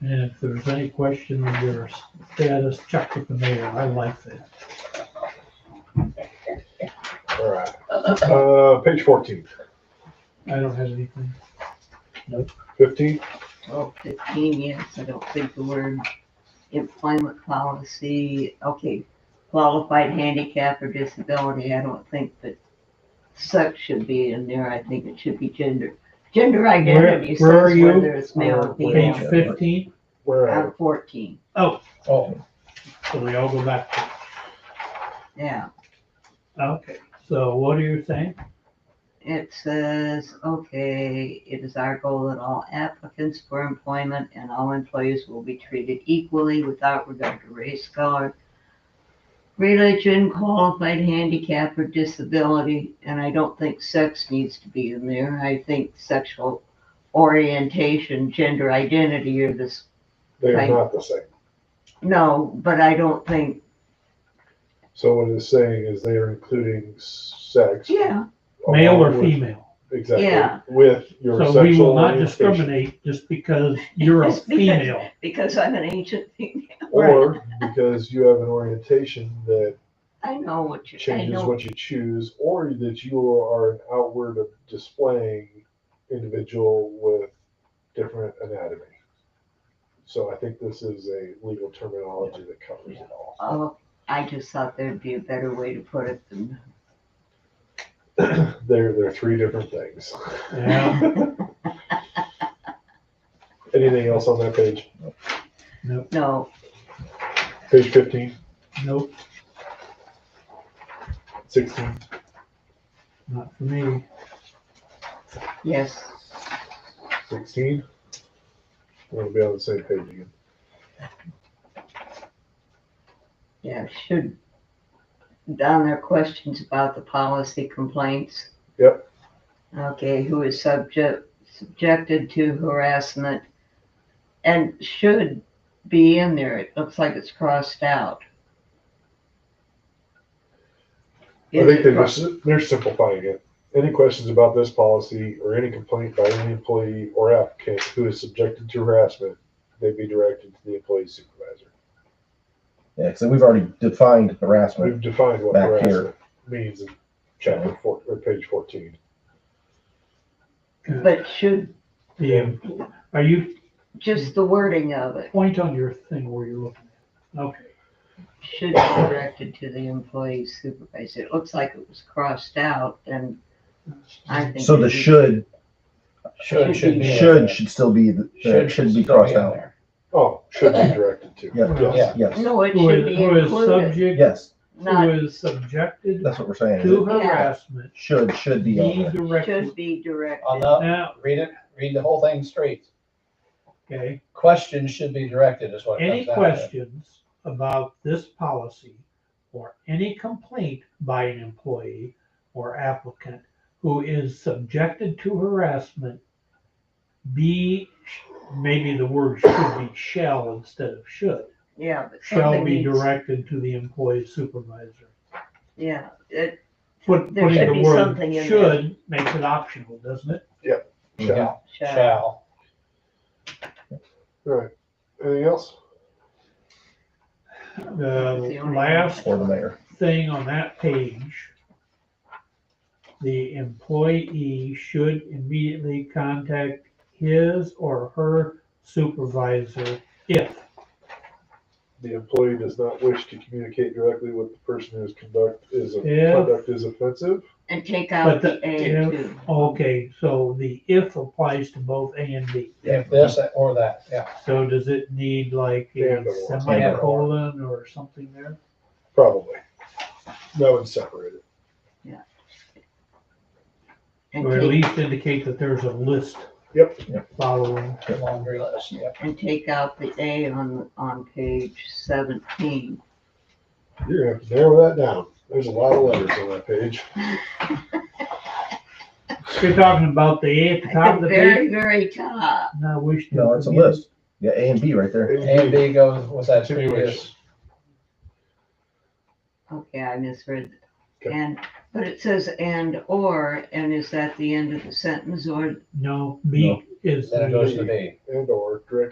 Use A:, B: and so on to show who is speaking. A: And if there's any question of your status, check with the mayor. I like that.
B: All right. Uh, page fourteen.
A: I don't have anything.
B: Fifteen.
C: Oh, fifteen, yes, I don't think the word employment policy, okay, qualified handicap or disability, I don't think that sex should be in there, I think it should be gender, gender identity says
A: where are you?
C: whether it's male or
A: Page
C: female.
A: fifteen,
B: Where
C: I'm
B: are
C: fourteen,
B: Oh,
A: so we all go back. to
C: yeah,
A: Okay, so what are you saying?
C: it says, okay, it is our goal that all applicants for employment and all employees will be treated equally without regard to race, color, religion, qualified handicap, or disability, and I don't think sex needs to be in there. I think sexual orientation, gender identity are this,
B: they are
C: Right.
B: not the same.
C: no, but I don't think,
B: So what it's saying is they are including sex.
C: yeah,
A: Male or
B: along with-
A: female?
C: Yeah.
B: Exactly, with your
A: So we will
B: sexual
A: not
B: orientation.
A: discriminate just because you're a
C: Just because-
A: female.
C: because I'm an ancient thing.
B: Or because you have an orientation that
C: I know what you, I
B: changes
C: know,
B: what you choose, or that you are an outward of displaying individual with different anatomy. So I think this is a legal terminology that covers it all.
C: oh, I just thought there'd be a better way to put it than,
B: They're, they're three different things.
A: Yeah,
B: Anything else on that page?
C: no,
B: Page 15,
A: nope,
B: 16,
A: not for me.
C: yes,
B: 16? We're gonna be on the same page again.
C: yeah, should. Down there, questions about the policy complaints.
B: Yep,
C: okay, who is subject, subjected to harassment and should be in there. It looks like it's crossed out.
B: I think they're,
C: Is it
B: just- they're simplifying it. Any questions about this policy or any complaint by any employee or applicant who is subjected to harassment, they be directed to the employee supervisor.
D: Yeah, so we've already defined harassment.
B: We've defined what
D: Back here.
B: harassment means in chapter four, or page fourteen.
C: crossed- But should,
A: Yeah, are you,
C: just the wording of it,
A: point on your thing where you're looking at. Okay,
C: should be directed to the employee supervisor. It looks like it was crossed out and I think.
D: So the
C: it is-
D: should,
E: Should, should be. in
D: should
E: there.
D: should still be, the- uh,
E: Should
D: should be
E: still
D: crossed
E: in
D: out.
E: there.
B: Oh, should be directed to.
D: Yeah.
B: Yes.
D: Yes,
C: No, it
A: who
C: should
A: is,
C: be
A: who is
C: included,
A: subject,
D: yes,
A: who
C: not
A: is subjected
D: that's what we're saying.
A: to harassment,
D: Should, should be on
A: be
D: there.
A: directed.
C: should be
E: On
C: directed.
E: the,
A: Now,
E: read it, read the whole thing straight.
A: okay,
E: Questions should be directed is what it
A: Any
E: comes down to.
A: questions about this policy or any complaint by an employee or applicant who is subjected to harassment, be, maybe the word should be shall instead of should,
C: Yeah. but
A: shall
C: something
A: be
C: needs-
A: directed to the employee supervisor.
C: Yeah, it,
A: Put-
C: There should
A: Putting the
C: be something
A: word
C: in there.
A: should makes it optional, doesn't it?
B: Shall.
C: shall.
E: Shall.
B: All right. Anything else?
A: The Uh, last
D: Or the mayor.
A: thing on that page, the employee should immediately contact his or her supervisor if,
B: The employee does not wish to communicate directly with the person whose conduct is, uh,
A: Yeah.
B: conduct is offensive.
C: And take
A: But
C: out
A: the-
C: the A
A: yeah.
C: too.
A: okay, so the if applies to both A and B.
E: If this that, or that, yeah.
A: So does it need like a
B: And or.
A: semicolon or something there?
B: Probably. That would separate it.
C: And
A: Or at
C: take,
A: least indicate that there's a list
B: Yep.
A: following.
E: Laundry list, yeah.
C: and take out the A on, on page seventeen.
B: You're gonna have to narrow that down. There's a lot of letters on that page.
A: You're talking about the A at the top
C: At
A: of
C: the
A: the page?
C: very, very top.
A: No, I wish. to-
D: No, it's a list. Yeah, A and B right there.
E: A and B goes with that previous.
B: Continuation.
C: Okay, I misread.
B: Okay.
C: And, but it says and or, and is that the end of the sentence or
A: No, B
D: No.
A: is.
E: Then it
A: the-
E: goes to B.
B: And or direct